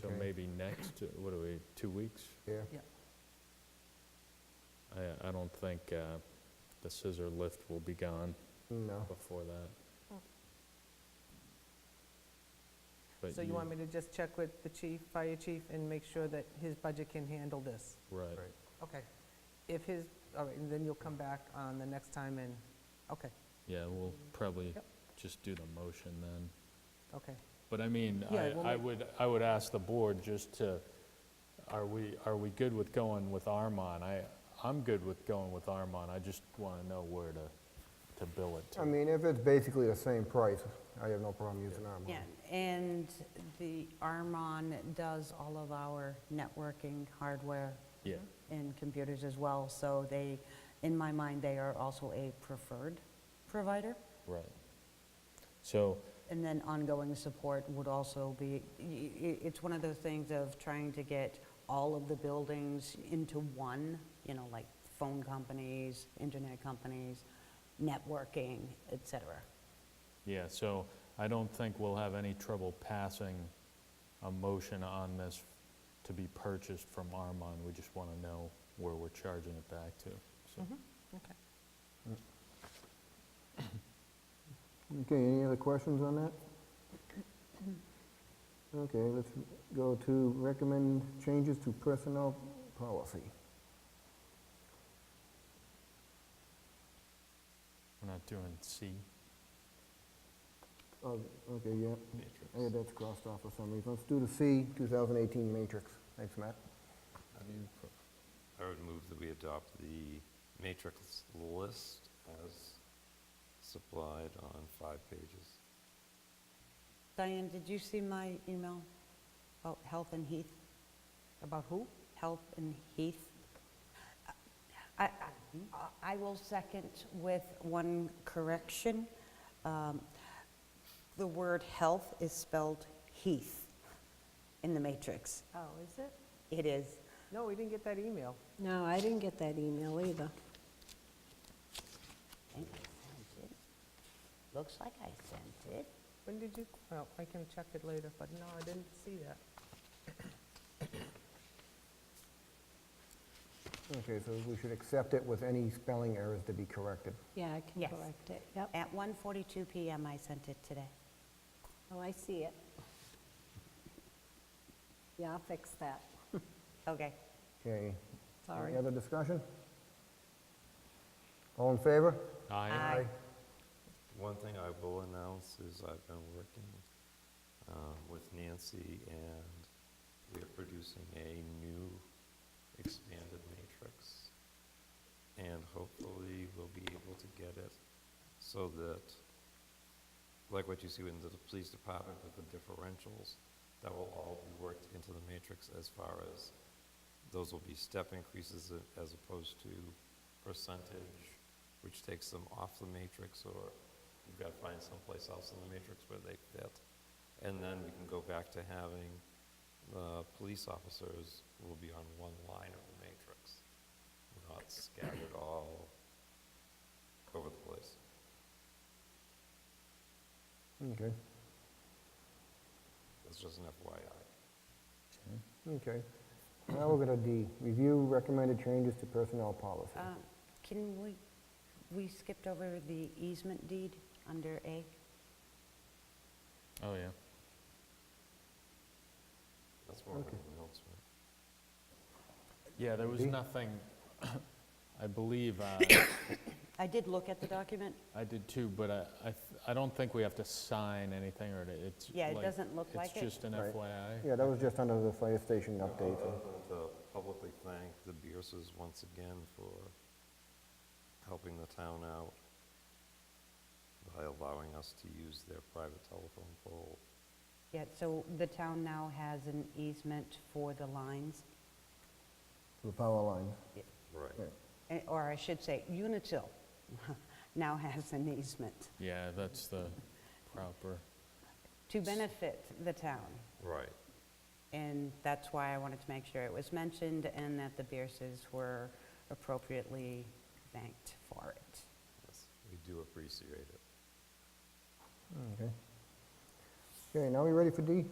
So Okay. maybe next, uh, what are we, two weeks? Yeah, I, I don't think uh, the scissor lift will be gone no. before that. Oh. But So you want me to just check with the chief, fire chief, and make sure that his budget can handle this? Right. Right. Okay. If his, all right, and then you'll come back on the next time and, okay, Yeah, we'll probably Yep. just do the motion then. okay. But I mean, Yeah, I we'll I make- would, I would ask the board just to, are we, are we good with going with Armon? I, I'm good with going with Armon, I just want to know where to, to bill it to. I mean, if it's basically the same price, I have no problem using our money. Yeah, and the Armon does all of our networking hardware Yeah, and computers as well, so they, in my mind, they are also a preferred provider. right. So, And then ongoing support would also be, y- y- it's one of those things of trying to get all of the buildings into one, you know, like phone companies, internet companies, networking, et cetera. yeah, so I don't think we'll have any trouble passing a motion on this to be purchased from Armon. We just want to know where we're charging it back to, so. Mm-hmm. Okay. Okay, any other questions on that? Okay, let's go to recommend changes to personnel policy. We're not doing C. Oh, okay, yeah, yeah, that's crossed off for some reason. Let's do the C, 2018 matrix. Thanks, Matt. I would move that we adopt the matrix list as supplied on five pages. Diane, did you see my email about Health and Heath? About who? Health and Heath. I, I- I will second with one correction. Um, The word health is spelled Heath in the matrix. Oh, is it? It is. No, we didn't get that email. No, I didn't get that email either. I think I sent it. Looks like I sent it. When did you, well, I can check it later, but no, I didn't see that. Okay, so we should accept it with any spelling errors to be corrected. Yeah, I can Yes. correct it, yep. At 1:42 PM, I sent it today. Oh, I see it. Yeah, I'll fix that, Okay. Okay, sorry. any other discussion? All in favor? Aye. One thing I will announce is I've been working um, with Nancy, and we are producing a new expanded matrix. And hopefully, we'll be able to get it so that, like what you see in the police department with the differentials, that will all be worked into the matrix as far as, those will be step increases a- as opposed to percentage which takes them off the matrix, or you've got to find someplace else in the matrix where they fit. And then we can go back to having the police officers will be on one line of the matrix, not scattered all over the place. Okay, That's just an FYI. okay. Now we're going to D, review recommended changes to personnel policy. Um, Can we, we skipped over the easement deed under A? Oh, yeah. That's more of an Okay. announcement. Yeah, there was Maybe. nothing, I believe, uh, I did look at the document. I did too, but I, I th- I don't think we have to sign anything, or it- it's. Yeah, it like- doesn't look like it. It's just an Right. FYI. Yeah, that was just under the fire station update. so- Uh, To publicly thank the Bierces once again for helping the town out by allowing us to use their private telephone pole. Yeah, so the town now has an easement for the lines, The power line. Right. eh, or I should say, Unitil now has an easement Yeah, that's the proper, to benefit the town. Right. And that's why I wanted to make sure it was mentioned and that the Bierces were appropriately thanked for it. Yes, we do appreciate it. Okay. Okay, now we ready for D?